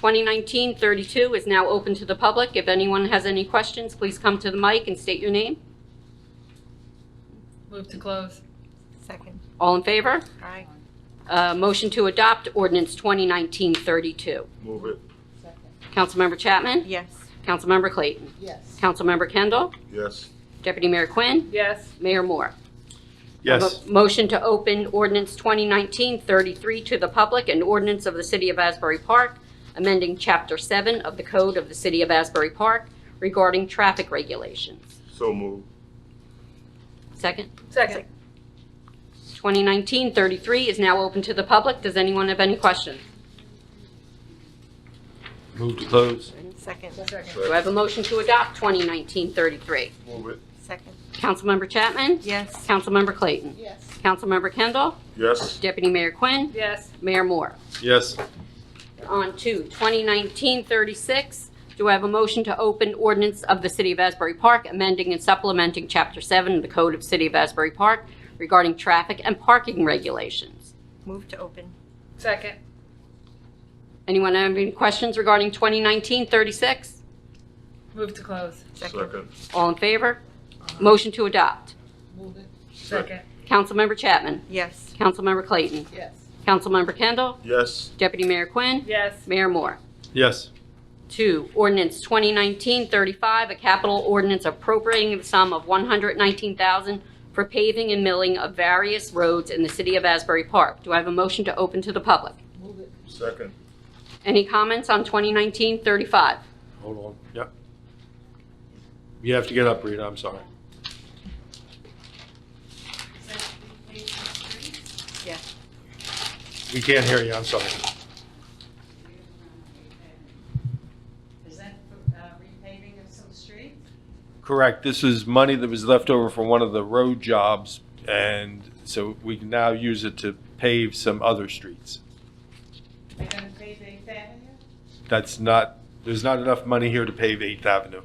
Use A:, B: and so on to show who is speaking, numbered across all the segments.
A: 2019-32 is now open to the public. If anyone has any questions, please come to the mic and state your name.
B: Move to close.
C: Second.
A: All in favor?
C: Aye.
A: Uh, Motion to adopt ordinance 2019-32.
D: Move it,
E: Second.
A: Councilmember Chapman?
C: Yes.
A: Councilmember Clayton?
E: Yes.
A: Councilmember Kendall?
D: yes.
A: Deputy Mayor Quinn?
B: Yes.
A: Mayor Moore?
D: Yes.
A: Mo- Motion to open ordinance 2019-33 to the public, an ordinance of the City of Asbury Park, amending Chapter 7 of the Code of the City of Asbury Park regarding traffic regulations.
D: So move,
A: Second.
B: Second.
A: 2019-33 is now open to the public. Does anyone have any questions?
F: Move to close.
C: Second.
B: Second.
A: Do I have a motion to adopt 2019-33?
D: move it,
C: Second.
A: Councilmember Chapman?
C: Yes.
A: Councilmember Clayton?
E: Yes.
A: Councilmember Kendall?
D: yes.
A: Deputy Mayor Quinn?
B: Yes.
A: Mayor Moore?
F: Yes.
A: On to 2019-36, do I have a motion to open ordinance of the City of Asbury Park amending and supplementing Chapter 7 of the Code of City of Asbury Park regarding traffic and parking regulations?
C: Move to open.
B: Second.
A: Anyone have any questions regarding 2019-36?
B: Move to close.
D: Second,
A: All in favor? Motion to adopt.
E: Move it.
B: Second.
A: Councilmember Chapman.
C: Yes.
A: Councilmember Clayton.
E: Yes.
A: Councilmember Kendall.
D: yes.
A: Deputy Mayor Quinn.
B: Yes.
A: Mayor Moore.
F: Yes.
A: Two, ordinance 2019-35, a capital ordinance appropriating the sum of 119000 for paving and milling of various roads in the city of Asbury Park. Do I have a motion to open to the public?
E: Move it.
D: Second,
A: Any comments on 2019-35?
F: Hold on. Yep. You have to get up, Rita. I'm sorry.
C: Yes.
F: We can't hear you. I'm sorry.
G: Is that uh, repaving of some streets?
F: Correct. This is money that was left over from one of the road jobs, and so we can now use it to pave some other streets.
G: They're gonna pave Eighth Avenue?
F: That's not, there's not enough money here to pave Eighth Avenue.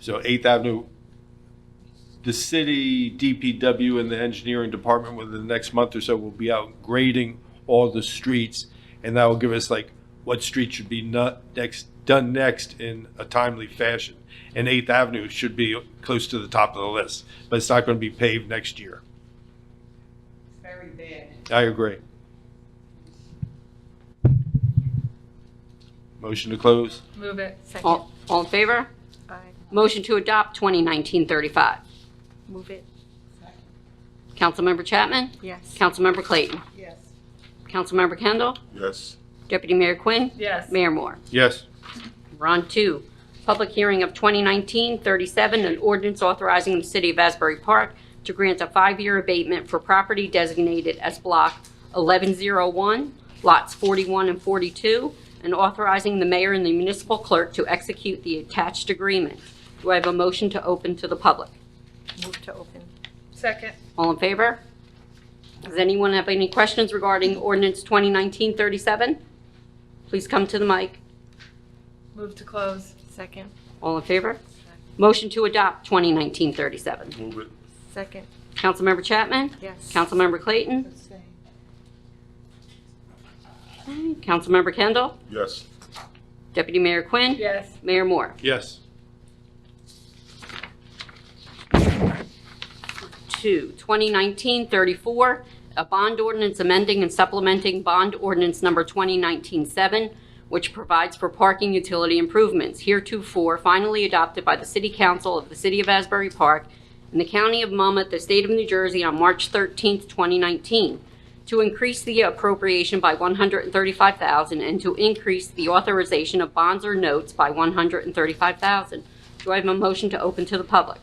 F: So Eighth Avenue, the city DPW and the engineering department within the next month or so will be out grading all the streets. And that will give us like what street should be not next, done next in a timely fashion. And Eighth Avenue should be close to the top of the list, but it's not going to be paved next year.
G: It's very bad.
F: I agree. Motion to close?
B: Move it.
C: Second.
A: All all in favor?
C: Aye.
A: Motion to adopt 2019-35.
C: Move it.
A: Councilmember Chapman?
C: Yes.
A: Councilmember Clayton?
E: Yes.
A: Councilmember Kendall?
D: yes.
A: Deputy Mayor Quinn?
B: Yes.
A: Mayor Moore?
F: Yes.
A: We're on to public hearing of 2019-37, an ordinance authorizing the City of Asbury Park to grant a five-year abatement for property designated as Block 1101, Lots 41 and 42, and authorizing the mayor and the municipal clerk to execute the attached agreement. Do I have a motion to open to the public?
C: Move to open.
B: Second.
A: All in favor? Does anyone have any questions regarding ordinance 2019-37? Please come to the mic.
B: Move to close.
C: Second.
A: All in favor? Motion to adopt 2019-37.
D: Move it,
C: Second.
A: Councilmember Chapman?
C: Yes.
A: Councilmember Clayton?
E: Abstain.
A: Councilmember Kendall?
D: yes.
A: Deputy Mayor Quinn?
B: Yes.
A: Mayor Moore?
F: Yes.
A: Two, 2019-34, a bond ordinance amending and supplementing bond ordinance number 2019-7, which provides for parking utility improvements heretofore finally adopted by the City Council of the City of Asbury Park and the County of Monmouth, the State of New Jersey, on March 13, 2019, to increase the appropriation by 135000 and to increase the authorization of bonds or notes by 135000 Do I have a motion to open to the public?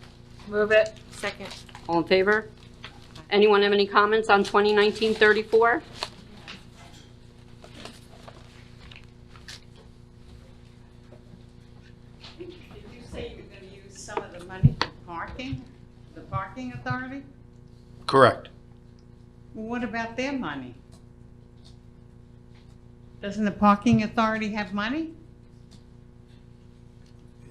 B: Move it.
C: Second.
A: All in favor? Anyone have any comments on 2019-34?
G: Did you say you were gonna use some of the money for parking, the parking authority?
F: Correct.
G: Well, What about their money? Doesn't the parking authority have money?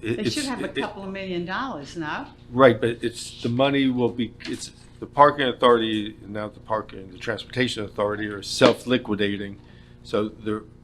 G: They should have a couple of million dollars, no?
F: Right, but it's, the money will be, it's, the parking authority, now the parking, the transportation authority are self-liquidating. So the